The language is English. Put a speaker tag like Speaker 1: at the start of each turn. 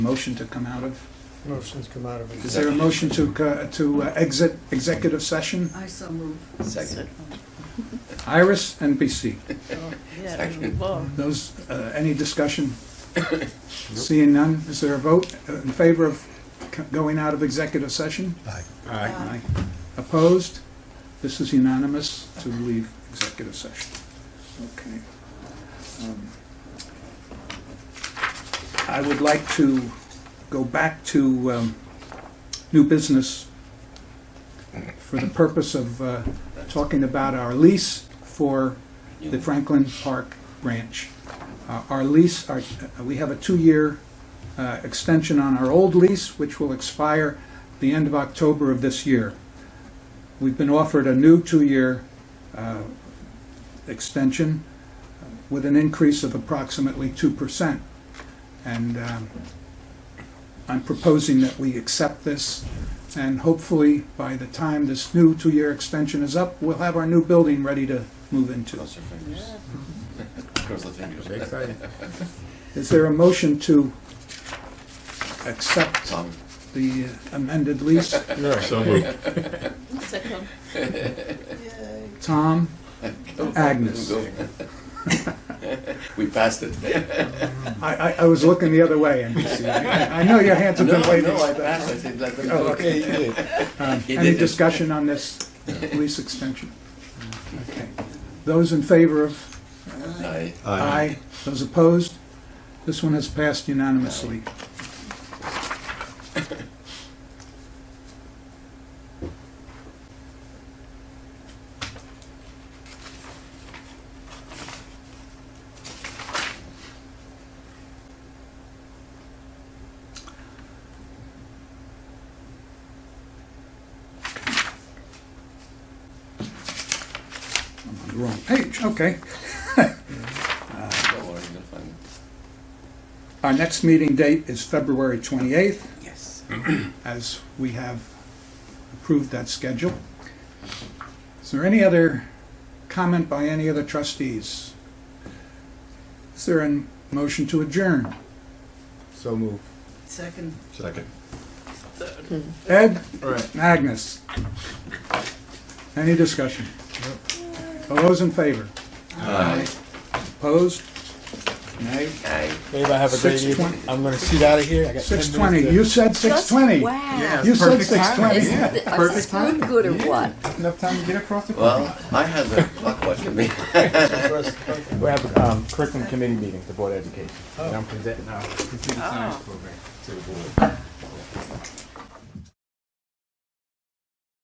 Speaker 1: motion to come out of?
Speaker 2: Motion's come out of
Speaker 1: Is there a
Speaker 2: executive.
Speaker 1: motion to, co- to uh, exit executive session?
Speaker 3: I so move.
Speaker 4: Second.
Speaker 1: Iris, NBC.
Speaker 3: Oh, yeah,
Speaker 4: Second.
Speaker 3: well,
Speaker 1: Those, uh, any discussion? Seeing none, is there a vote in favor of c- going out of executive session?
Speaker 2: Aye.
Speaker 1: Aye. Opposed? This is unanimous to leave executive session. Okay. Um, I would like to go back to um, new business for the purpose of uh, talking about our lease for the Franklin Park Ranch. Uh, Our lease, our- uh, we have a two-year uh, extension on our old lease, which will expire the end of October of this year. We've been offered a new two-year uh, extension with an increase of approximately 2%. And um, I'm proposing that we accept this, and hopefully, by the time this new two-year extension is up, we'll have our new building ready to move into.
Speaker 4: Cross your fingers.
Speaker 3: yeah.
Speaker 4: Cross the fingers.
Speaker 1: Is there a motion to accept
Speaker 4: Tom,
Speaker 1: the amended lease?
Speaker 5: So moved.
Speaker 3: Second.
Speaker 1: Tom? Oh, Agnes.
Speaker 4: go. We passed it.
Speaker 1: I, I, I was looking the other way, NBC. I I know your hands have been
Speaker 4: No,
Speaker 1: waiting.
Speaker 4: no, I passed it. It doesn't
Speaker 1: Oh,
Speaker 4: go.
Speaker 1: okay, Um,
Speaker 4: He
Speaker 1: Any
Speaker 4: did it.
Speaker 1: discussion on this lease extension? Okay. Those in favor of?
Speaker 4: Aye.
Speaker 1: Aye. Those opposed? This one has passed unanimously. I'm on the wrong page, okay.
Speaker 4: Don't worry, you'll find it.
Speaker 1: Our next meeting date is February 28th,
Speaker 3: Yes.
Speaker 1: as we have approved that schedule. Is there any other comment by any other trustees? Is there a motion to adjourn?
Speaker 5: So moved.
Speaker 3: Second.
Speaker 5: Second.
Speaker 1: Ed,
Speaker 5: All right.
Speaker 1: Agnes? Any discussion? All those in favor? Aye. Opposed? Nay?
Speaker 4: Aye.
Speaker 2: Babe, I have a great
Speaker 1: 6:20.
Speaker 2: evening. I'm gonna seat out of here. I got 10 minutes
Speaker 1: 6:20,
Speaker 2: to-
Speaker 1: you said 6:20.
Speaker 6: Wow.
Speaker 1: You said
Speaker 5: Perfect timing.
Speaker 1: 6:20, yeah.
Speaker 6: Isn't it, was the screw good or what?
Speaker 5: Enough time to get across the.
Speaker 4: Well, I had the clock watching me.
Speaker 2: We have a um, curriculum committee meeting, the Board of Education. And I'm presenting our computer science program to the board.